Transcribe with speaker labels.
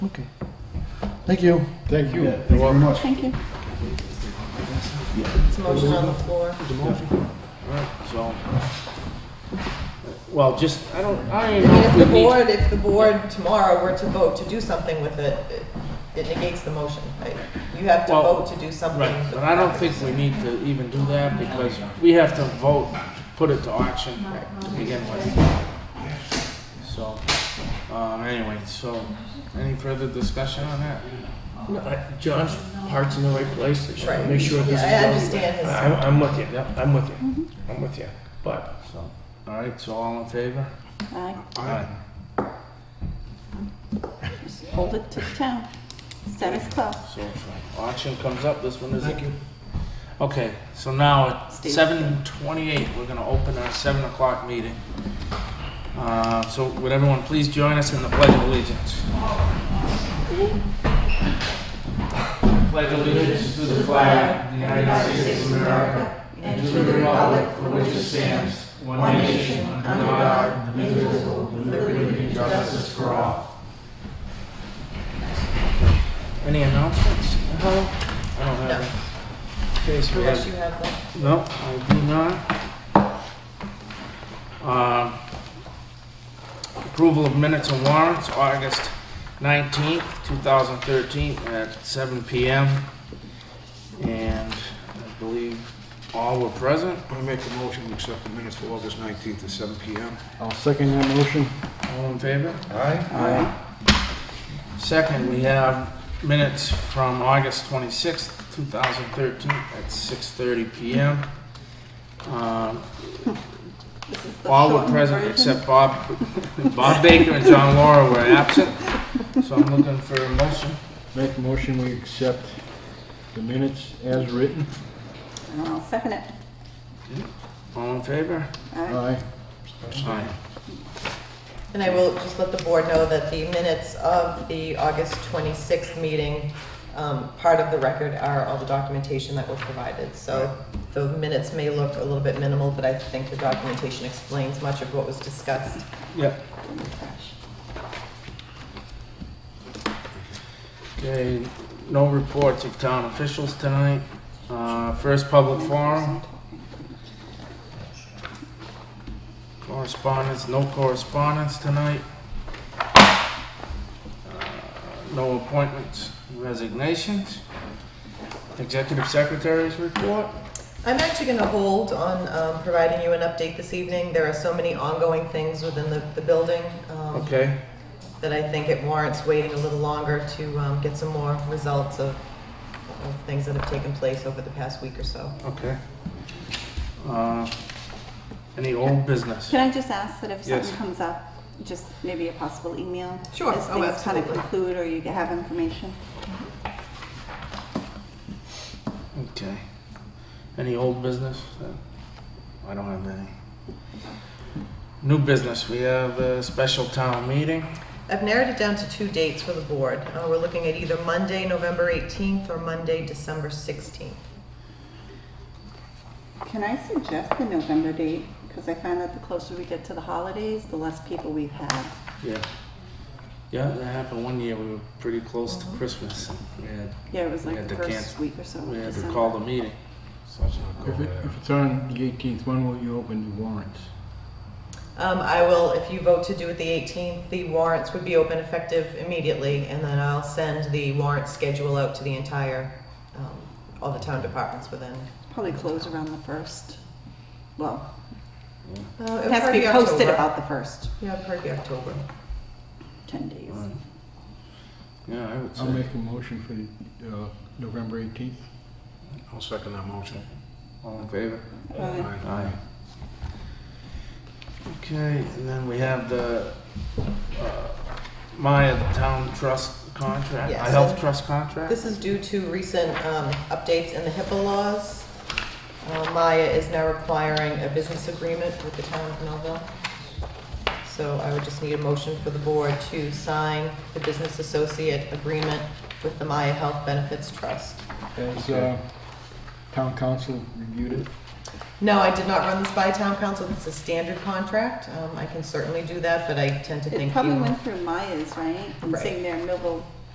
Speaker 1: Okay. Thank you.
Speaker 2: Thank you. Thank you very much.
Speaker 3: Thank you.
Speaker 4: It's a motion on the
Speaker 5: Mm-hmm.
Speaker 4: floor.
Speaker 5: So, well, just, I don't, I don't know
Speaker 4: If
Speaker 5: if
Speaker 4: the
Speaker 5: we need.
Speaker 4: board, if the board tomorrow were to vote to do something with it, it- it negates the motion, right? You have to
Speaker 5: Well,
Speaker 4: vote to do something.
Speaker 5: Right,
Speaker 4: with
Speaker 5: but I don't
Speaker 4: the
Speaker 5: think we need to even do that because we have to vote, put it to auction to begin with. So, um, anyway, so, any further discussion on that?
Speaker 6: No, I- John's heart's in the right place. They should
Speaker 4: Right.
Speaker 6: make sure this
Speaker 4: Yeah,
Speaker 6: is
Speaker 4: I
Speaker 6: done.
Speaker 4: understand his-
Speaker 6: I'm, I'm with you. I'm with you. I'm with you. But
Speaker 5: So, all right, so all in favor?
Speaker 3: I
Speaker 5: Aye.
Speaker 3: just hold it to town. Status quo.
Speaker 5: So if auction comes up, this one is. Thank you. Okay, so now at
Speaker 3: Steve.
Speaker 5: seven twenty-eight, we're gonna open our seven o'clock meeting. Uh, so would everyone please join us in the pledge of allegiance? Pledge allegiance to the flag of the United States of America and to the republic for which it stands, one nation, under God, indivisible, with liberty and justice for all. Any announcements? No. I don't have any. Okay, so we have
Speaker 4: Unless you have them.
Speaker 5: no, I do not. Um, Approval of minutes and warrants, August 19th, 2013, at seven PM. And I believe all were present.
Speaker 2: I make a motion to accept the minutes for August 19th at 7 PM.
Speaker 1: I'll second your motion.
Speaker 5: All in favor?
Speaker 2: Aye.
Speaker 5: Second, we have minutes from August 26th, 2013, at 6:30 PM. Um,
Speaker 3: This is the
Speaker 5: All were
Speaker 3: shortened
Speaker 5: present
Speaker 3: version.
Speaker 5: except Bob, Bob Baker and John Laura were absent, so I'm looking for a motion.
Speaker 1: Make a motion, we accept the minutes as written.
Speaker 3: And I'll second it.
Speaker 5: All in favor?
Speaker 3: Aye.
Speaker 1: Aye.
Speaker 5: Aye.
Speaker 4: And I will just let the board know that the minutes of the August 26th meeting, um, part of the record are all the documentation that were provided. So the minutes may look a little bit minimal, but I think the documentation explains much of what was discussed.
Speaker 5: Yep. Okay, no reports of town officials tonight. Uh, First public forum. Correspondence, no correspondence tonight. Uh, No appointments, resignations. Executive Secretary's report.
Speaker 4: I'm actually going to hold on um, providing you an update this evening. There are so many ongoing things within the the building um,
Speaker 5: Okay,
Speaker 4: that I think it warrants waiting a little longer to um, get some more results of of things that have taken place over the past week or so.
Speaker 5: okay. Uh, Any old business?
Speaker 3: Can I just ask that if
Speaker 5: Yes.
Speaker 3: something comes up, just maybe a possible email?
Speaker 4: Sure.
Speaker 3: As
Speaker 4: Oh,
Speaker 3: things kind of
Speaker 4: absolutely.
Speaker 3: conclude or you have information?
Speaker 5: Okay. Any old business? Uh, I don't have any. New business, we have a special town meeting.
Speaker 4: I've narrowed it down to two dates for the board. Uh, We're looking at either Monday, November 18th, or Monday, December 16th.
Speaker 3: Can I suggest the November date? Because I find that the closer we get to the holidays, the less people we've had.
Speaker 5: Yeah. Yeah, that happened one year, we were pretty close to Christmas. We had,
Speaker 3: Yeah, it was
Speaker 5: We
Speaker 3: like
Speaker 5: had
Speaker 3: the
Speaker 5: to
Speaker 3: first
Speaker 5: cancel.
Speaker 3: week or so. of
Speaker 5: we had to
Speaker 3: December.
Speaker 5: call the meeting.
Speaker 1: If it, if it's on the eighteenth, when will you open the warrants?
Speaker 4: Um, I will, if you vote to do it the 18th, the warrants would be open effective immediately, and then I'll send the warrant schedule out to the entire, um, all the town departments within. uh,
Speaker 3: Probably close around the first. Well,
Speaker 4: Uh,
Speaker 3: it has to be posted about the first
Speaker 4: Yeah, probably October.
Speaker 3: ten days.
Speaker 5: Right. Yeah, I would
Speaker 1: I'll
Speaker 5: say.
Speaker 1: make a motion for the, uh, November eighteenth.
Speaker 2: I'll second that motion.
Speaker 5: All in favor?
Speaker 3: Well,
Speaker 5: Aye. Okay, and then we have the uh, Maya Town Trust contract,
Speaker 4: Yes.
Speaker 5: a health trust contract?
Speaker 4: This is due to recent um, updates in the HIPAA laws. Uh, Maya is now requiring a business agreement with the town of Millville. So I would just need a motion for the board to sign the business associate agreement with the Maya Health Benefits Trust.
Speaker 1: As, uh, town council reviewed it.
Speaker 4: No, I did not run this by town council. It's a standard contract. Um, I can certainly do that, but I tend to
Speaker 3: It
Speaker 4: think
Speaker 3: probably
Speaker 4: you,
Speaker 3: went through Myers, right? And
Speaker 4: Right.
Speaker 3: seeing their Millville